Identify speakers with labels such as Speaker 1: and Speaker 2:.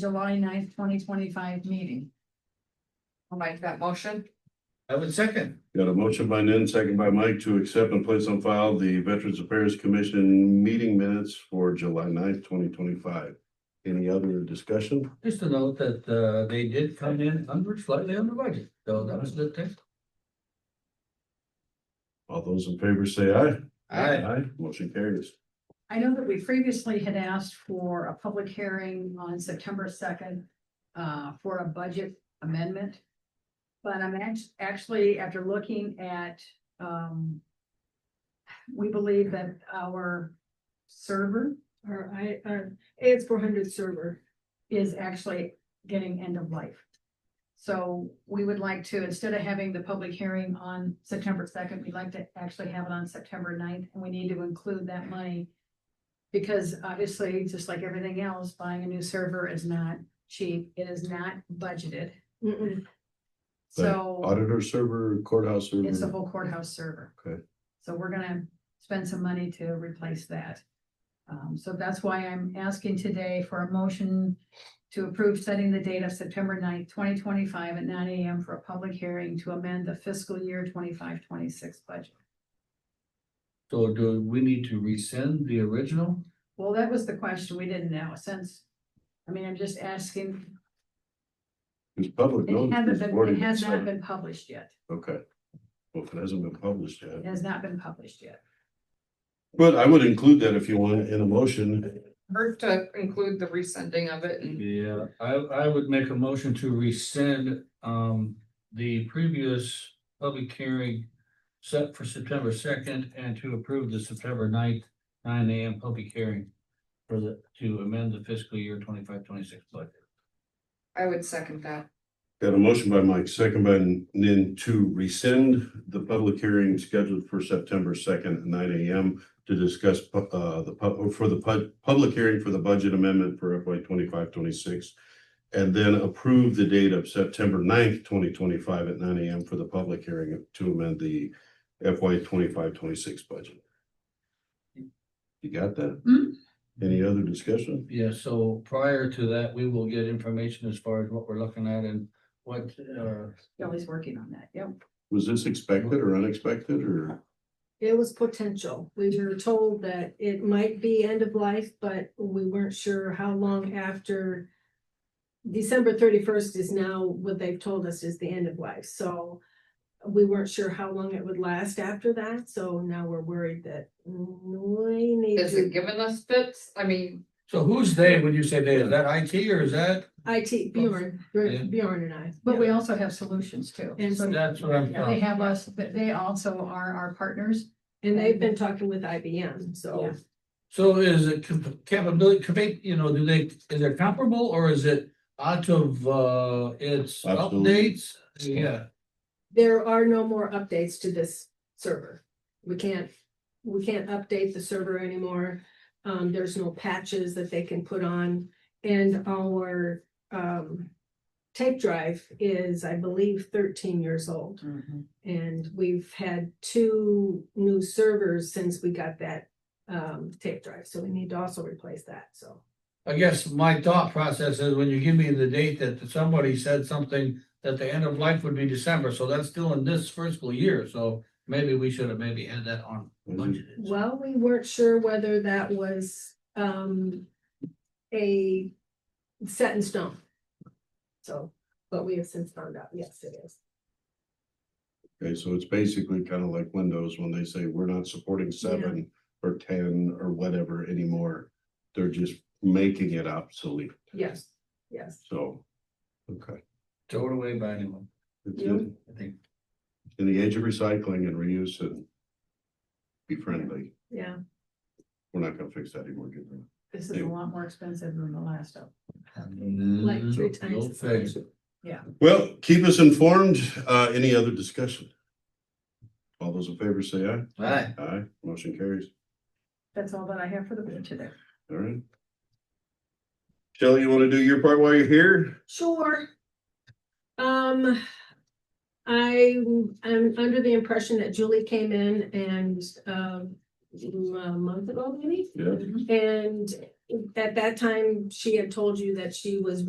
Speaker 1: July 9th, twenty twenty-five meeting. I'll make that motion.
Speaker 2: I would second.
Speaker 3: Got a motion by Nan, second by Mike to accept and place on file the Veterans Affairs Commission meeting minutes for July 9th, twenty twenty-five. Any other discussion?
Speaker 2: Just to note that uh they did come in under slightly under budget, so that was the thing.
Speaker 3: All those in favor say aye.
Speaker 2: Aye.
Speaker 3: Aye, motion carries.
Speaker 1: I know that we previously had asked for a public hearing on September second uh, for a budget amendment. But I'm act- actually, after looking at, um, we believe that our server
Speaker 4: Our I, our AS four hundred server.
Speaker 1: is actually getting end of life. So we would like to, instead of having the public hearing on September second, we'd like to actually have it on September 9th, and we need to include that money. Because obviously, just like everything else, buying a new server is not cheap, it is not budgeted,
Speaker 4: Mm-mm.
Speaker 1: so
Speaker 3: Auditor server, courthouse
Speaker 1: it's the
Speaker 3: server.
Speaker 1: whole courthouse server.
Speaker 3: Mm-hmm. Okay.
Speaker 1: So we're gonna spend some money to replace that. Um, so that's why I'm asking today for a motion to approve setting the date of September 9th, twenty twenty-five at nine AM for a public hearing to amend the fiscal year 25-26 budget.
Speaker 2: So do we need to rescind the original?
Speaker 1: Well, that was the question. We didn't know since, I mean, I'm just asking,
Speaker 3: It's public
Speaker 1: it hasn't
Speaker 3: notice. it's
Speaker 1: been, it
Speaker 3: already
Speaker 1: has not
Speaker 3: sent.
Speaker 1: been published yet.
Speaker 3: Okay. Well, if it hasn't been published yet.
Speaker 1: It has not been published yet.
Speaker 3: But I would include that if you want in a motion.
Speaker 5: Hurt to include the resending of it and
Speaker 2: Yeah, I I would make a motion to rescind um the previous public hearing. Set for September second and to approve the September 9th nine AM public hearing. For the to amend the fiscal year twenty-five, twenty-six budget.
Speaker 5: I would second that.
Speaker 3: Got a motion by Mike, second by Nin to rescind the public hearing scheduled for September second at nine AM to discuss pu- uh the pub, for the pub, public hearing for the budget amendment for FY twenty-five, twenty-six. And then approve the date of September 9th, twenty twenty-five at nine AM for the public hearing to amend the FY twenty-five, twenty-six budget. You got that?
Speaker 1: Hmm.
Speaker 3: Any other discussion?
Speaker 2: Yeah, so prior to that, we will get information as far as what we're looking at and what uh
Speaker 1: Kelly's working on that. Yep.
Speaker 3: Was this expected or unexpected or?
Speaker 4: It was potential. We were told that it might be end of life, but we weren't sure how long after. December thirty-first is now what they've told us is the end of life, so. We weren't sure how long it would last after that, so now we're worried that we need
Speaker 5: Is it
Speaker 4: to.
Speaker 5: giving us fits? I mean,
Speaker 2: So who's they when you say they? Is that IT or is that?
Speaker 4: IT, Bjorn,
Speaker 2: Yeah.
Speaker 4: Bjorn and I.
Speaker 1: But we also have solutions too.
Speaker 4: And-
Speaker 1: So
Speaker 2: That's what I'm.
Speaker 1: Yeah, they have us, but they also are our partners.
Speaker 4: And they've been talking with IBM, so.
Speaker 1: Yeah.
Speaker 2: So is it cap- capability, capa- you know, do they, is it comparable or is it out of uh its
Speaker 3: Absolutely.
Speaker 2: updates? Yeah,
Speaker 4: there are no more updates to this server. We can't, we can't update the server anymore. Um, there's no patches that they can put on and our, um, tape drive is, I believe, thirteen years old. And we've had two new servers since we got that, um, tape drive. So we need to also replace that, so.
Speaker 2: I guess my thought process is when you give me the date that somebody said something that the end of life would be December, so that's still in this fiscal year, so maybe we should have maybe had that on budgeted.
Speaker 4: Well, we weren't sure whether that was um a set in stone. So, but we have since found out, yes, it is.
Speaker 3: Okay, so it's basically kind of like Windows when they say we're not supporting seven or ten or whatever anymore. They're just making it obsolete.
Speaker 4: Yes, yes.
Speaker 3: So, okay.
Speaker 2: Throw it away by anyone,
Speaker 3: It's
Speaker 4: Yeah.
Speaker 3: in-
Speaker 2: I think.
Speaker 3: In the age of recycling and reuse and be friendly,
Speaker 4: Yeah,
Speaker 3: we're not gonna fix that anymore. good man.
Speaker 1: This is a lot more expensive than the last of.
Speaker 4: Like three
Speaker 2: Mm,
Speaker 4: times
Speaker 2: you'll
Speaker 4: the size.
Speaker 2: fix it.
Speaker 3: Well, keep us informed. Uh, any other discussion? All those in favor say aye.
Speaker 2: Right.
Speaker 3: Aye, motion carries.
Speaker 1: That's all that I have for the board today.
Speaker 3: All right. Shelley, you wanna do your part while you're here?
Speaker 4: sure. Um, I am under the impression that Julie came in and um a month ago maybe.
Speaker 3: Yeah.
Speaker 4: And at that time, she had told you that she was